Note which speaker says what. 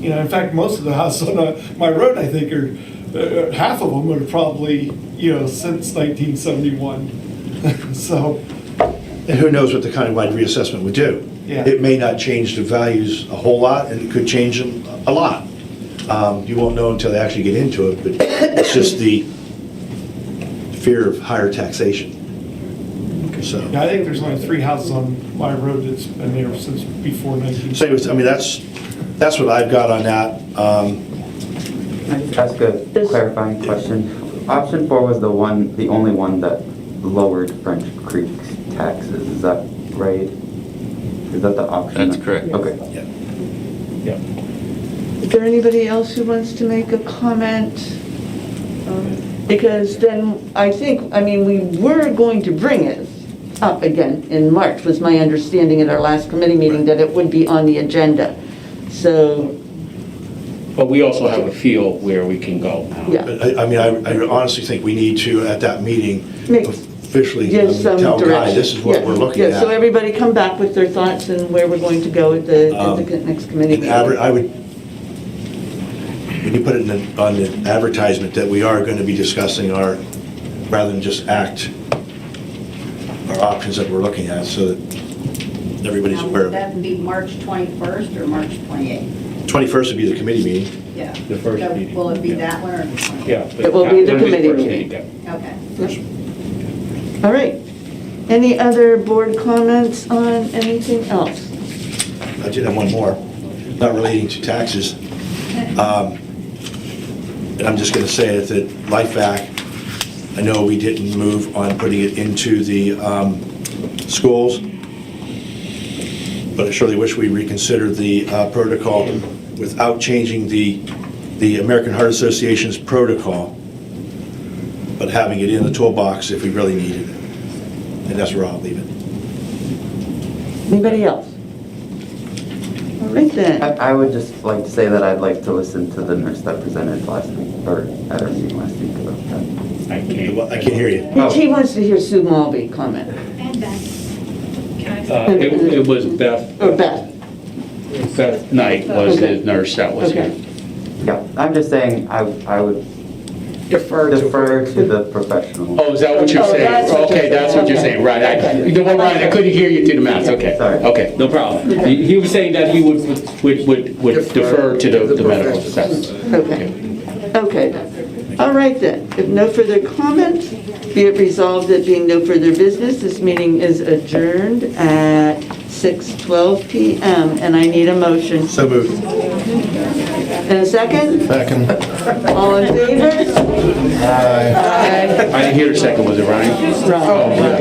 Speaker 1: You know, in fact, most of the houses on uh, my road, I think, are, uh, half of them are probably, you know, since 1971. So,
Speaker 2: And who knows what the countywide reassessment would do?
Speaker 1: Yeah.
Speaker 2: It may not change the values a whole lot, and it could change them a lot. Um, You won't know until they actually get into it, but it's just the fear of higher taxation. So,
Speaker 1: yeah, I think there's only three houses on my road that's been there since before 19.
Speaker 2: so anyways, I mean, that's, that's what I've got on that. Um,
Speaker 3: Can I just ask a
Speaker 4: This-
Speaker 3: clarifying question? Option four was the one, the only one that lowered French Creek's taxes, is that right? Is that the option?
Speaker 5: That's correct.
Speaker 3: Okay.
Speaker 2: yeah.
Speaker 1: Yeah.
Speaker 4: Is there anybody else who wants to make a comment? Um, Because then, I think, I mean, we were going to bring it up again in March, was my understanding at our last committee meeting, that it would be on the agenda. So,
Speaker 6: But we also have a feel where we can go.
Speaker 4: yeah,
Speaker 2: But I, I mean, I I honestly think we need to, at that meeting,
Speaker 4: Make-
Speaker 2: officially
Speaker 4: give some
Speaker 2: um, tell Guy,
Speaker 4: direction.
Speaker 2: this is what
Speaker 4: Yeah,
Speaker 2: we're looking
Speaker 4: Yeah, so
Speaker 2: at.
Speaker 4: everybody come back with their thoughts and where we're going to go at the, at the next committee
Speaker 2: And
Speaker 4: meeting.
Speaker 2: Um, adver- I would, when you put it in the- on the advertisement that we are going to be discussing our, rather than just act, our options that we're looking at, so that everybody's
Speaker 7: Now,
Speaker 2: aware
Speaker 7: Would
Speaker 2: of it.
Speaker 7: that be March 21st or March 28th?
Speaker 2: 21st would be the committee meeting.
Speaker 7: Yeah.
Speaker 6: The first
Speaker 7: So
Speaker 6: meeting,
Speaker 7: Will it be
Speaker 6: yeah.
Speaker 7: that one or the 28th?
Speaker 6: Yeah.
Speaker 4: It will be the
Speaker 6: It'll
Speaker 4: committee
Speaker 6: first
Speaker 4: meeting.
Speaker 6: yeah.
Speaker 7: Okay.
Speaker 4: All right. Any other board comments on anything else?
Speaker 2: I did have one more, not relating to taxes. Um, And I'm just going to say it, that Life Act, I know we didn't move on putting it into the um, schools, but I surely wish we reconsidered the uh, protocol without changing the, the American Heart Association's protocol, but having it in the toolbox if we really needed it. And that's where I'll leave it.
Speaker 4: Anybody else? All right
Speaker 3: I,
Speaker 4: then.
Speaker 3: I would just like to say that I'd like to listen to the nurse that presented last week, or at our meeting last week about that. Oh,
Speaker 6: I can't.
Speaker 2: I can't hear you.
Speaker 4: He- He wants to hear Sue Mulvey comment,
Speaker 8: And Beth. Can I-
Speaker 6: Uh, It it was Beth,
Speaker 4: or Oh, Beth.
Speaker 6: Beth Knight was the
Speaker 4: Okay.
Speaker 6: nurse that was here.
Speaker 4: Okay.
Speaker 3: Yeah, I'm just saying, I, I would
Speaker 6: Defer
Speaker 3: defer to the professional.
Speaker 6: Oh, is that what you're
Speaker 4: Oh,
Speaker 6: saying?
Speaker 4: that's what you're
Speaker 6: Okay, that's what you're
Speaker 4: saying.
Speaker 6: saying, right. I-
Speaker 4: Okay.
Speaker 6: You know what, Ryan, I couldn't hear you through the mask, okay.
Speaker 3: Sorry.
Speaker 6: Okay, no problem. He he was saying that he would, would, would- would defer to the- the medical professionals.
Speaker 4: Okay. Okay. then. All right then. If no further comments, be it resolved that being no further business, this meeting is adjourned at 6:12 PM, and I need a motion.
Speaker 2: So moved.
Speaker 4: And a second? Second. All in favor?
Speaker 6: I didn't hear the second, was it Ryan?
Speaker 4: Right.